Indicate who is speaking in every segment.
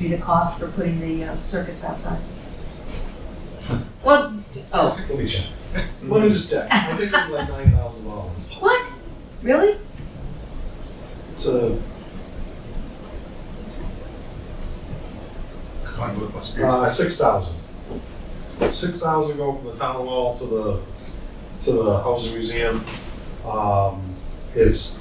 Speaker 1: be the cost for putting the uh, circuits outside.
Speaker 2: Well, oh,
Speaker 3: Let me check. What is that? I think it was like nine thousand dollars.
Speaker 2: what? Really?
Speaker 3: It's a,
Speaker 4: Conduit must be.
Speaker 3: uh, six thousand. Six thousand go from the town hall to the, to the house museum. Um, it's,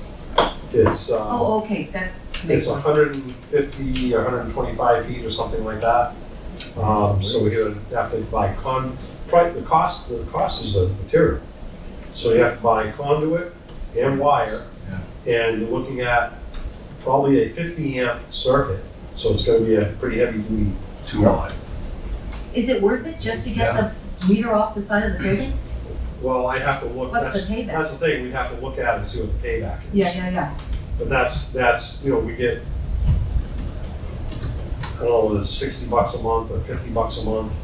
Speaker 3: it's, uh,
Speaker 1: Oh, okay, that's a big
Speaker 3: it's
Speaker 1: one.
Speaker 3: hundred and fifty, hundred and twenty-five feet or something like that. Um, so we would have to buy con, pri- the cost, the cost is the material. So you have to buy conduit and wire. And you're looking at probably a fifty amp circuit, so it's gonna be a pretty heavy duty
Speaker 4: Two line.
Speaker 1: Is it worth it just to get the meter off the side of the building?
Speaker 3: Well, I have to look,
Speaker 1: What's
Speaker 3: that's,
Speaker 1: the payback?
Speaker 3: that's the thing, we'd have to look at and see what the payback is.
Speaker 1: Yeah, yeah, yeah.
Speaker 3: But that's, that's, you know, we get, I don't know, it's sixty bucks a month or fifty bucks a month,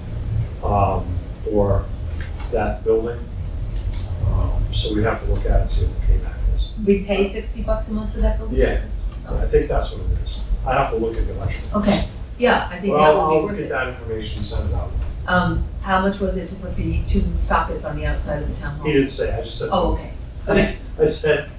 Speaker 3: um, for that building. Um, So we'd have to look at and see what the payback is.
Speaker 1: We pay sixty bucks a month for that building?
Speaker 3: Yeah, I think that's what it is. I'd have to look at the electric.
Speaker 1: Okay, yeah, I think that
Speaker 3: Well,
Speaker 1: would
Speaker 3: I'll
Speaker 1: be
Speaker 3: look
Speaker 1: worth
Speaker 3: at
Speaker 1: it.
Speaker 3: that information, and send it out.
Speaker 1: Um, how much was it to put the two sockets on the outside of the town
Speaker 3: He
Speaker 1: hall?
Speaker 3: didn't say, I just said.
Speaker 1: Oh, okay. okay.
Speaker 3: I said.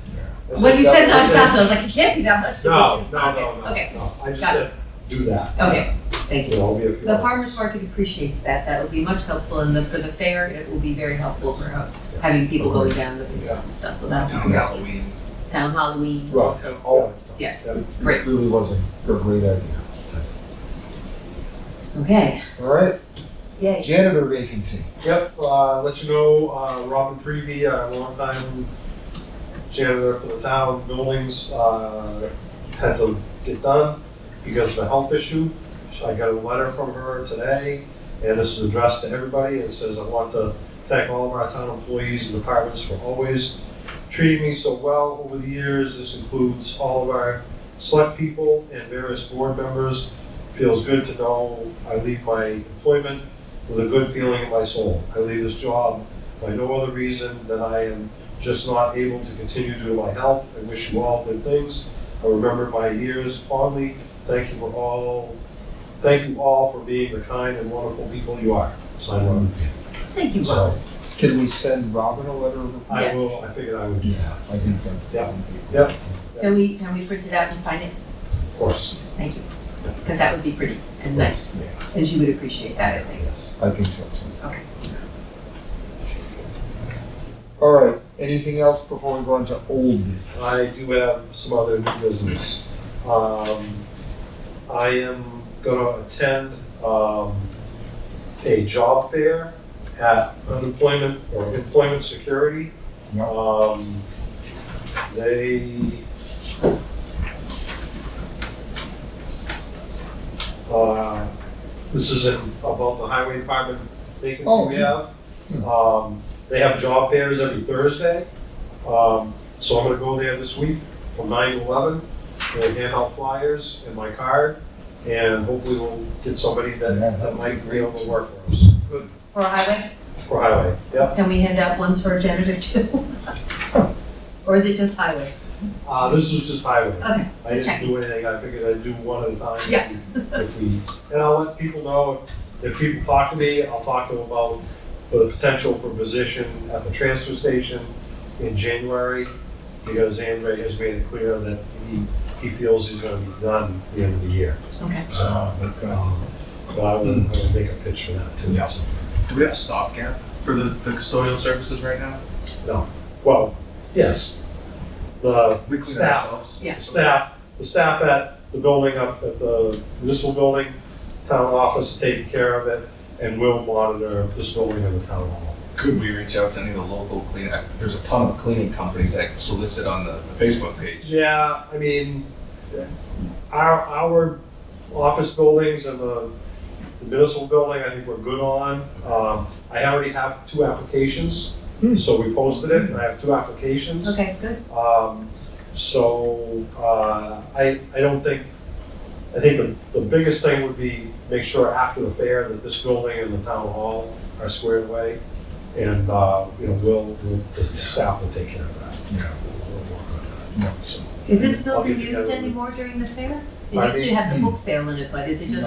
Speaker 3: I
Speaker 1: When you said
Speaker 3: that- I
Speaker 1: nine thousand, I was like, it can't be that much to
Speaker 3: No,
Speaker 1: put
Speaker 3: no,
Speaker 1: two
Speaker 3: no,
Speaker 1: sockets.
Speaker 3: no,
Speaker 1: Okay,
Speaker 3: no. I just
Speaker 1: got it.
Speaker 3: said, do that.
Speaker 1: okay, thank
Speaker 3: You
Speaker 1: you.
Speaker 3: know, I'll be a few.
Speaker 2: The farmer's market appreciates that. That will be much helpful and the, for the fair, it will be very helpful for uh, having people going down with this sort of stuff. So that'll
Speaker 4: Town
Speaker 2: be great.
Speaker 4: Halloween.
Speaker 2: Town Halloween.
Speaker 5: Right.
Speaker 2: So,
Speaker 5: all that stuff.
Speaker 2: Yeah.
Speaker 5: That
Speaker 2: Great.
Speaker 5: Clearly Oh. wasn't a great idea.
Speaker 2: okay.
Speaker 5: All right,
Speaker 2: Yay.
Speaker 5: janitor vacancy.
Speaker 3: Yep, uh, let you know, uh, Robin Prevey, a longtime janitor for the town buildings, uh, had to get done because of a health issue. So I got a letter from her today, and this is addressed to everybody, and it says, I want to thank all of our town employees and departments for always treating me so well over the years. This includes all of our select people and various board members. Feels good to know I leave my employment with a good feeling in my soul. I leave this job by no other reason than I am just not able to continue due to my health. I wish you all good things. I remember my years fondly. Thank you for all, thank you all for being the kind and wonderful people you are. Sign Robin.
Speaker 2: Thank you, Bob.
Speaker 3: So
Speaker 5: Can we send Robin a letter? of-
Speaker 3: I
Speaker 2: Yes.
Speaker 3: will, I figured I would,
Speaker 5: Yeah, I think that.
Speaker 3: Yeah.
Speaker 5: Yep.
Speaker 2: Can we, can we print it out and sign it?
Speaker 3: of course.
Speaker 2: Thank you. Because that would be pretty and nice. And she would appreciate that, I think.
Speaker 5: I think so too.
Speaker 2: Okay.
Speaker 5: All right, anything else before we go into old business?
Speaker 3: I do have some other new business. Um, I am gonna attend, um, a job fair at unemployment or employment security.
Speaker 5: Yeah.
Speaker 3: Um, they. Uh, this is in, about the highway department vacancy
Speaker 5: Oh.
Speaker 3: we have. Um, they have job fairs every Thursday. Um, so I'm gonna go there this week from nine to eleven. They hand out flyers and my card and hopefully we'll get somebody that,
Speaker 5: Yeah.
Speaker 3: that might be able to work for us.
Speaker 2: For a highway,
Speaker 3: For highway, yep.
Speaker 2: can we hand out ones for a janitor too? Or is it just highway?
Speaker 3: Uh, this was just highway.
Speaker 2: Okay,
Speaker 3: I
Speaker 2: let's check.
Speaker 3: didn't do anything, I figured I'd do one at a time. if
Speaker 2: Oh, Yeah.
Speaker 3: we- If we, and I'll let people know, if people talk to me, I'll talk to them about the potential for position at the transfer station in January, because Andre has made it clear that he, he feels he's gonna be done at the end of the year.
Speaker 2: Okay.
Speaker 5: Oh,
Speaker 3: So, um, But I will, I will make a pitch for that too.
Speaker 4: Yeah. Do we have a stopgap for the, the custodial services right now?
Speaker 3: Well, yes, the
Speaker 4: We clean
Speaker 3: Staff.
Speaker 4: ourselves?
Speaker 2: Yeah.
Speaker 3: staff, the staff at the building up at the municipal building, town office taking care of it, and will monitor this building and the town hall.
Speaker 4: Could we reach out to any of the local clean, I- there's a ton of cleaning companies that solicit on the the Facebook page.
Speaker 3: Yeah, I mean, our, our office buildings and the the municipal building, I think we're good on. Um, I already have two applications, so we posted it, and I have two applications.
Speaker 2: Okay, good.
Speaker 3: Um, so, uh, I, I don't think, I think the, the biggest thing would be make sure after the fair that this building and the town hall are squared away. And, uh, you know, we'll, we'll, the staff will take care of that.
Speaker 5: Yeah.
Speaker 3: We'll work on
Speaker 5: Yeah.
Speaker 3: that. So-
Speaker 2: Is this
Speaker 3: I'll get
Speaker 2: building
Speaker 3: together
Speaker 2: used
Speaker 3: with-
Speaker 2: anymore during the fair? It
Speaker 3: Pardon
Speaker 2: used to
Speaker 3: me?
Speaker 2: have the book sale in it, but is it just